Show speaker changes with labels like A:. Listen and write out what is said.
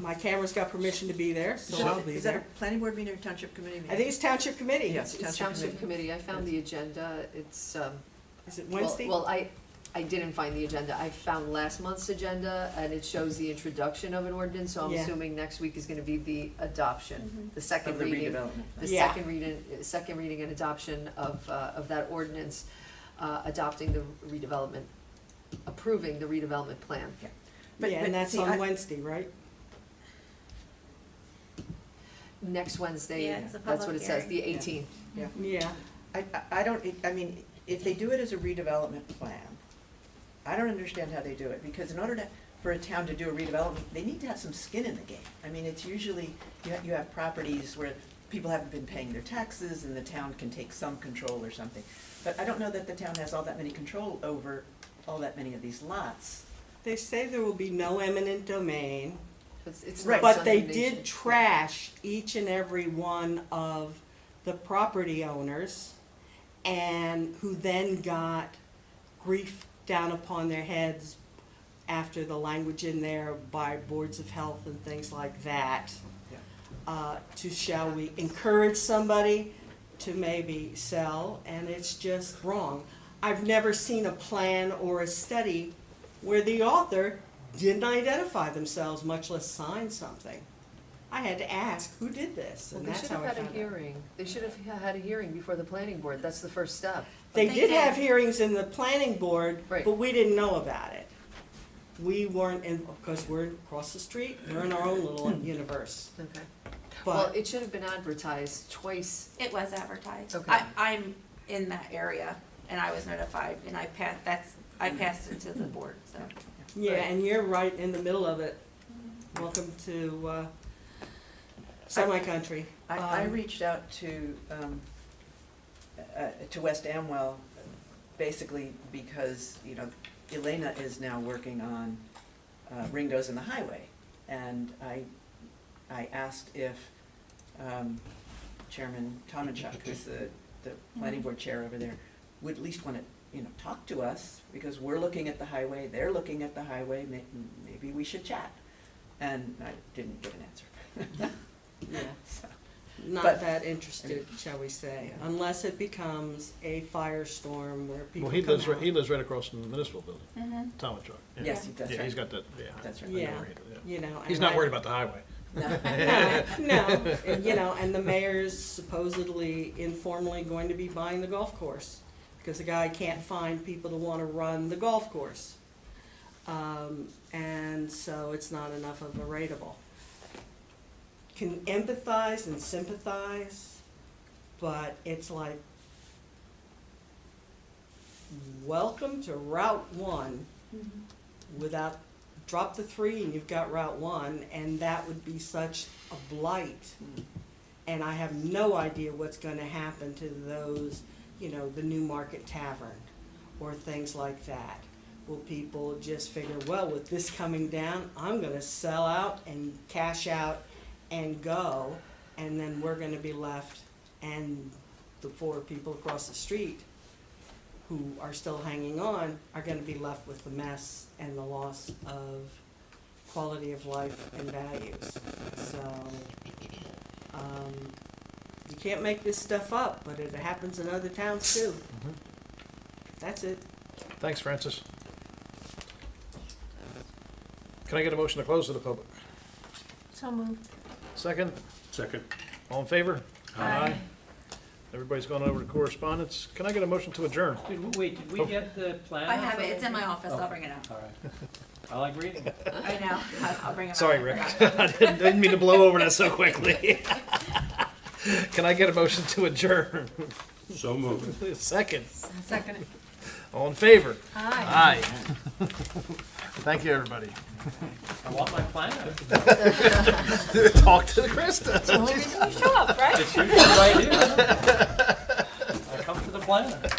A: my camera's got permission to be there, so
B: Is that-
A: I'll be
B: Is that a
A: there.
B: planning board meeting or township committee meeting?
A: I think it's township committee. It's-
B: Yes,
A: it's-
B: Township
C: Township Committee, I found the agenda, it's, um,
A: Is it
C: well-
A: Wednesday?
C: Well, I, I didn't find the agenda, I found last month's agenda, and it shows the introduction of an ordinance, so I'm
A: Yeah.
C: assuming next week is gonna be the
D: Mm-hmm.
C: adoption, the
B: Of
C: second
B: the
C: reading.
B: redevelopment.
C: The
A: Yeah.
C: second reading, second reading and adoption of, uh, of that ordinance, uh, adopting the redevelopment, approving the redevelopment plan.
B: But-
A: Yeah,
B: but
A: and that's
B: see,
A: on
B: I-
A: Wednesday, right?
C: Next
D: Yeah,
C: Wednesday,
D: it's a
C: that's what
D: public
C: it says, the
D: hearing.
C: eighteenth.
A: Yeah,
B: I, I- I don't, I mean, if they do it as a redevelopment plan, I don't understand how they do it, because in order to, for a town to do a redevelopment, they need to have some skin in the game. I mean, it's usually, you have, you have properties where people haven't been paying their taxes, and the town can take some control or something. But I don't know that the town has all that many control over all that many of these lots.
A: they say there will be no eminent domain,
C: It's, it's
B: Right.
C: not
A: but they
C: condemnation.
A: did trash each and every one of the property owners, and who then got grief down upon their heads after the language in there by boards of health and things like that.
B: Yeah.
A: Uh, to shall we encourage somebody to maybe sell, and it's just wrong. I've never seen a plan or a study where the author didn't identify themselves, much less sign something. I had to ask, who did this?
C: Well,
A: And
C: they
A: that's
C: should
A: how
C: have
A: I
C: had a
A: found out.
C: hearing, they should have ha- had a hearing before the planning board, that's the first step.
A: They
D: They
A: did
D: did.
A: have hearings in the planning board,
C: Right.
A: but we didn't know about it. We weren't in, because we're across the street, we're in our own little universe.
C: Okay. Well,
A: But,
C: it should have been advertised twice,
D: It was advertised.
C: Okay.
D: I, I'm in that area and I was notified and I passed, that's, I passed it to the board, so.
A: yeah, and you're right in the middle of it. Welcome to, uh, semi-country.
B: I, I
A: Um,
B: reached out to, um, uh, to West Amwell, basically because, you know, Elena is now working on uh, Ringo's in the Highway. And I, I asked if um, Chairman Tomanchuk, who's the, the planning board chair over there, would at least want to, you know, talk to us, because we're looking at the highway, they're looking at the highway, may- maybe we should chat. And I didn't get an answer.
A: Yeah.
B: So.
A: Not
B: But-
A: that interested, shall we say,
B: Yeah.
A: unless it becomes a firestorm where people
E: Well, he
A: come
E: lives, right-
A: out.
E: he lives right across from the municipal building,
D: Mhm.
E: Thomas Truck. yeah.
B: Yes, he does,
E: Yeah, he's
B: right.
E: got that, yeah.
B: That's right.
E: I know
A: Yeah.
E: where he lives, yeah.
A: You know.
E: He's
A: and
E: not
A: I-
E: worried about the highway.
A: No, no, and, you know, and the mayor's supposedly informally going to be buying the golf course, because the guy can't find people to wanna run the golf course. Um, and so it's not enough of a rateable. Can empathize and sympathize, but it's like, welcome to Route One without drop the three and you've got Route One, and that would be such a blight.
B: Mm.
A: And I have no idea what's gonna happen to those, you know, the New Market Tavern or things like that. Will people just figure, well, with this coming down, I'm gonna sell out and cash out and go, and then we're gonna be left and the four people across the street who are still hanging on are gonna be left with the mess and the loss of quality of life and values. So, um, you can't make this stuff up, but it happens in other towns too.
E: Mhm.
A: That's it.
E: Thanks, Francis. Can I get a motion to close to the public?
D: So moved.
E: Second,
F: Second.
E: all in favor? Everybody's gone over to correspondence. Can I get a motion to adjourn?
G: Did we- Wait, did we
E: Oh.
G: get the plan?
D: I have it, it's in my office, I'll
F: Oh.
D: bring it up.
F: All right. I like reading.
D: I know, I'll- I'll bring it up.
E: Sorry,
D: I
E: Rick.
D: forgot.
E: I didn't didn't mean to blow over that so quickly. Can I get a motion to adjourn?
F: So moved.
E: Second,
C: Second.
E: all in favor?
D: Hi.
E: Aye. Thank you, everybody.
G: I want my plan.
E: Talk to the Krista.
G: It's usually right here. I come for the plan.